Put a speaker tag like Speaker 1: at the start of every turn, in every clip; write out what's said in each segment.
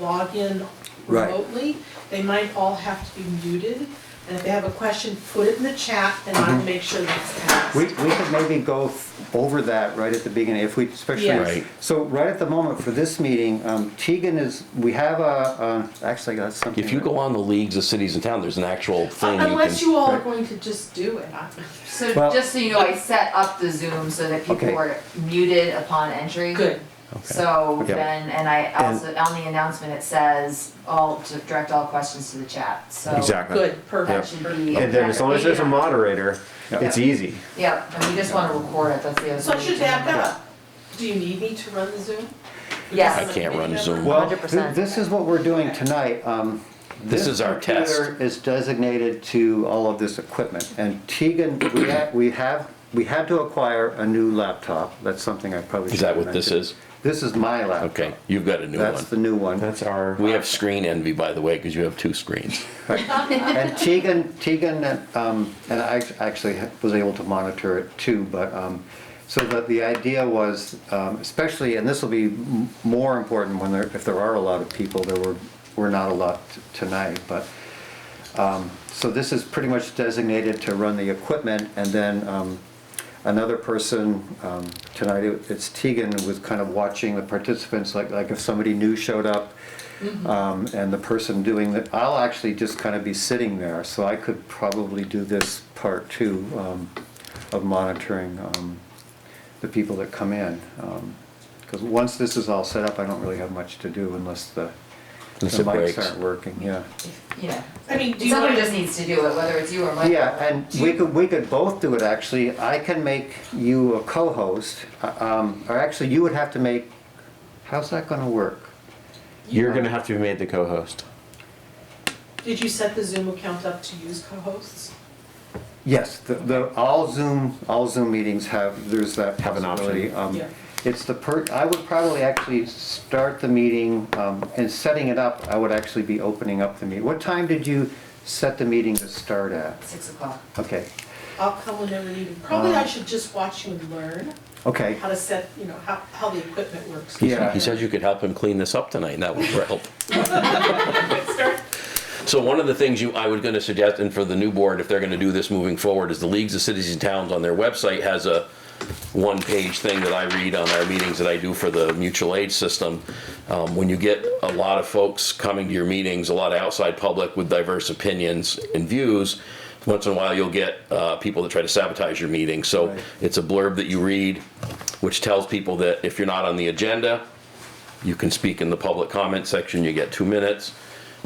Speaker 1: log in
Speaker 2: Right.
Speaker 1: remotely. They might all have to be muted, and if they have a question, put it in the chat, and I'll make sure that's asked.
Speaker 2: We, we could maybe go th- over that right at the beginning, if we,
Speaker 1: Yes.
Speaker 2: especially,
Speaker 1: Right.
Speaker 2: so right at the moment for this meeting, um, Tegan is, we have a, uh, actually, that's something.
Speaker 3: If you go on the leagues of cities and towns, there's an actual thing.
Speaker 1: Uh, Unless
Speaker 3: can-
Speaker 1: you all are going to just do it. I-
Speaker 4: So
Speaker 2: Well-
Speaker 4: just so you know, I set up the Zoom so that
Speaker 2: Okay.
Speaker 4: people were muted upon entry.
Speaker 1: Good.
Speaker 4: So
Speaker 2: Okay.
Speaker 4: then, and I also, on the announcement, it says all, to direct all questions to the chat, so.
Speaker 5: Exactly.
Speaker 1: Good,
Speaker 4: That
Speaker 1: perfect.
Speaker 4: should be.
Speaker 5: And then as long as there's a moderator,
Speaker 2: Yeah.
Speaker 5: it's easy.
Speaker 4: Yep, and we just wanna record it, that's the other.
Speaker 1: So I should
Speaker 4: thing.
Speaker 1: back up. Do you need me to run the Zoom?
Speaker 4: Yes.
Speaker 3: I can't run Zoom.
Speaker 2: Well, th-
Speaker 4: 100%.
Speaker 2: this is what we're doing tonight, um.
Speaker 3: This is our test.
Speaker 2: computer Is designated to all of this equipment, and Tegan, we ha we have, we had to acquire a new laptop, that's something I probably.
Speaker 3: Is that
Speaker 2: should've
Speaker 3: what this
Speaker 2: mentioned.
Speaker 3: is?
Speaker 2: This is my laptop.
Speaker 3: Okay, you've got a new
Speaker 2: That's the
Speaker 3: one.
Speaker 2: new one.
Speaker 5: That's our.
Speaker 3: We have screen envy, by the way, because you have two screens.
Speaker 2: And Tegan, Tegan, um, and I actually was able to monitor it too, but, um, so that the idea was, um, especially, and this will be m- more important when there, if there are a lot of people, there were, were not a lot t- tonight, but, um, so this is pretty much designated to run the equipment, and then, um, another person, um, tonight, it- it's Tegan, was kind of watching the participants, like, like if somebody new showed up, um, and the person doing the, I'll actually just kind of be sitting there, so I could probably do this part too, um, of monitoring, um, the people that come in. Because once this is all set up, I don't really have much to do unless the the
Speaker 3: Unless it
Speaker 2: mics
Speaker 3: breaks.
Speaker 2: aren't working, yeah.
Speaker 4: Yeah.
Speaker 1: I mean, do you
Speaker 4: Somebody
Speaker 1: want,
Speaker 4: just needs to do it, whether it's you or Michael.
Speaker 2: Yeah, and we could, we could both do it, actually. I can make you a co-host, uh, um, or actually, you would have to make, how's that gonna work?
Speaker 5: You're gonna have to be made the co-host.
Speaker 1: did you set the Zoom account up to use co-hosts?
Speaker 2: Yes, the, the, all Zoom, all Zoom meetings have, there's that
Speaker 5: Have an option.
Speaker 2: possibility. Um,
Speaker 1: Yeah.
Speaker 2: It's the per, I would probably actually start the meeting, um, and setting it up, I would actually be opening up the meeting. What time did you set the meeting to start at?
Speaker 4: Six o'clock.
Speaker 2: Okay,
Speaker 1: I'll come whenever needed. Probably
Speaker 3: Uh.
Speaker 1: I should just watch you and learn
Speaker 2: okay,
Speaker 1: how to set, you know, how, how the equipment works.
Speaker 2: Yeah.
Speaker 3: He said you could help him clean this up tonight, and that would help.
Speaker 1: Start
Speaker 3: So one of the things you, I was gonna suggest, and for the new board, if they're gonna do this moving forward, is the leagues of cities and towns on their website has a one-page thing that I read on our meetings that I do for the mutual aid system. Um, when you get a lot of folks coming to your meetings, a lot of outside public with diverse opinions and views, once in a while you'll get, uh, people that try to sabotage your meeting. So
Speaker 2: Right.
Speaker 3: it's a blurb that you read, which tells people that if you're not on the agenda, you can speak in the public comment section, you get two minutes.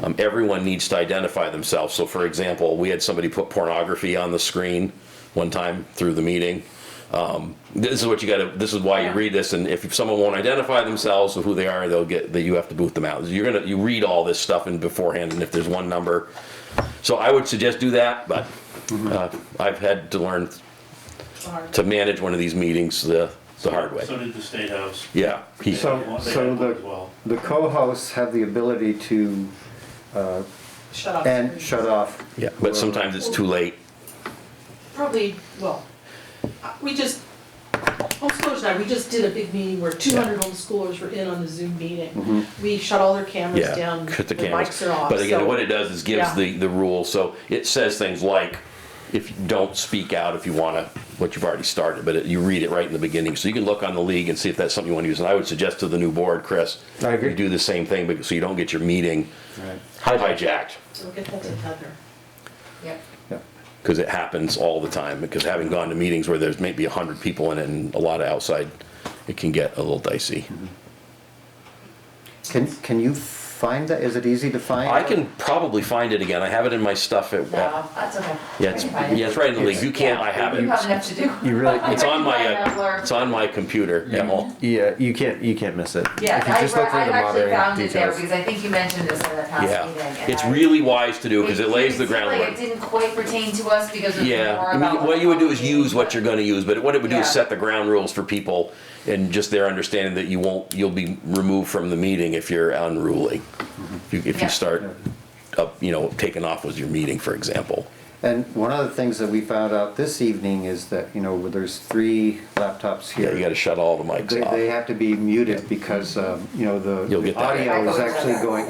Speaker 3: Um, everyone needs to identify themselves. So for example, we had somebody put pornography on the screen one time through the meeting. Um, this is what you gotta, this is why you read this, and if someone won't identify themselves or who they are, they'll get, that you have to boot them out. You're gonna, you read all this stuff in beforehand, and if there's one number. So I would suggest do that, but, uh, I've had to learn
Speaker 1: hard.
Speaker 3: to manage one of these meetings the, the hard way.
Speaker 6: So did the State House.
Speaker 3: Yeah. he-
Speaker 6: They had one-
Speaker 2: So-
Speaker 6: they had
Speaker 2: so
Speaker 6: one
Speaker 2: the-
Speaker 6: as well.
Speaker 2: the co-hosts have the ability to,
Speaker 1: Shut off.
Speaker 2: and
Speaker 1: screens.
Speaker 2: shut off.
Speaker 3: Yeah, but sometimes it's too late.
Speaker 1: probably, well, uh, we just, homeschoolers and I, we just did a big meeting where two hundred homeschoolers were in on the Zoom meeting. We shut all their cameras
Speaker 3: Mm-hmm. Yeah,
Speaker 1: down,
Speaker 3: cut the
Speaker 1: their
Speaker 3: cameras.
Speaker 1: mics are off,
Speaker 3: But again,
Speaker 1: so-
Speaker 3: what it does is
Speaker 1: Yeah.
Speaker 3: gives the, the rule, so it says things like, if you don't speak out if you wanna, what you've already started, but it- you read it right in the beginning. So you can look on the league and see if that's something you wanna use. And I would suggest to the new board, Chris,
Speaker 5: I agree.
Speaker 3: you do the same thing, because so you don't get your meeting
Speaker 2: Right.
Speaker 3: hijacked,
Speaker 1: We'll get that to Heather.
Speaker 4: Yep.
Speaker 2: Yeah.
Speaker 3: because it happens all the time. Because having gone to meetings where there's maybe a hundred people in it and a lot of outside, it can get a little dicey.
Speaker 2: Can, can you find that? Is it easy to find?
Speaker 3: I can probably find it again. I have it in my stuff at,
Speaker 4: No, that's okay.
Speaker 3: yeah,
Speaker 4: I
Speaker 3: it's,
Speaker 4: can find it.
Speaker 3: yeah, it's right in the league. You can't, I have it.
Speaker 4: You have enough to do.
Speaker 5: You really,
Speaker 3: It's on my,
Speaker 4: I can find
Speaker 3: uh,
Speaker 4: that
Speaker 3: it's on my computer at home.
Speaker 5: yeah, you can't, you can't miss it.
Speaker 4: Yeah,
Speaker 5: If you
Speaker 4: I,
Speaker 5: just look through
Speaker 4: I've
Speaker 5: the
Speaker 4: actually
Speaker 5: moderating
Speaker 4: found it there
Speaker 5: details.
Speaker 4: because I think you mentioned this at the past meeting.
Speaker 3: Yeah,
Speaker 4: and
Speaker 3: it's
Speaker 4: I-
Speaker 3: really wise to do because it
Speaker 4: seemed-
Speaker 3: lays the
Speaker 4: seemed like
Speaker 3: groundwork.
Speaker 4: It didn't quite pertain to us because it was
Speaker 3: Yeah,
Speaker 4: more
Speaker 3: I
Speaker 4: about.
Speaker 3: mean, what you would do is use what you're gonna use, but what it would do is
Speaker 4: Yeah.
Speaker 3: set the ground rules for people and just their understanding that you won't, you'll be removed from the meeting if you're unruly. If you- If
Speaker 4: Yeah.
Speaker 3: you start up, you know, taking off with your meeting, for example.
Speaker 2: And one of the things that we found out this evening is that, you know, where there's three laptops here.
Speaker 3: Yeah, you gotta shut all the mics
Speaker 2: They,
Speaker 3: off.
Speaker 2: they have to be muted because, um, you know, the
Speaker 3: You'll get
Speaker 2: the
Speaker 3: that.
Speaker 2: audio is actually going,